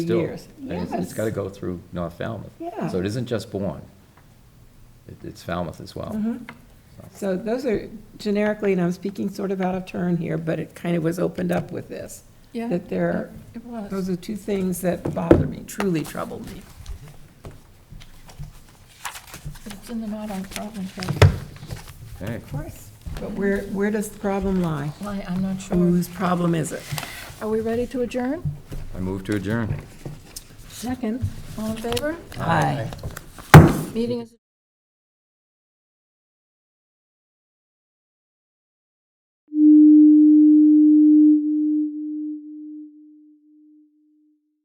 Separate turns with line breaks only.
years.
And it's- It's
Yes.
got to go through North Falmouth.
Yeah.
So it isn't just Bourne. It, it's Falmouth as well.
Mm-hmm. So those are generically, and I'm speaking sort of out of turn here, but it kind of was opened up with this.
Yeah,
That there,
It was.
those are two things that bother me, truly trouble me.
But It's in the not our problem
Okay.
Of course. But where, where does the problem lie?
Why, I'm not sure.
Whose problem is it?
Are we ready to adjourn?
I move to adjourn.
Second.
All in favor?
Aye.
Meeting is.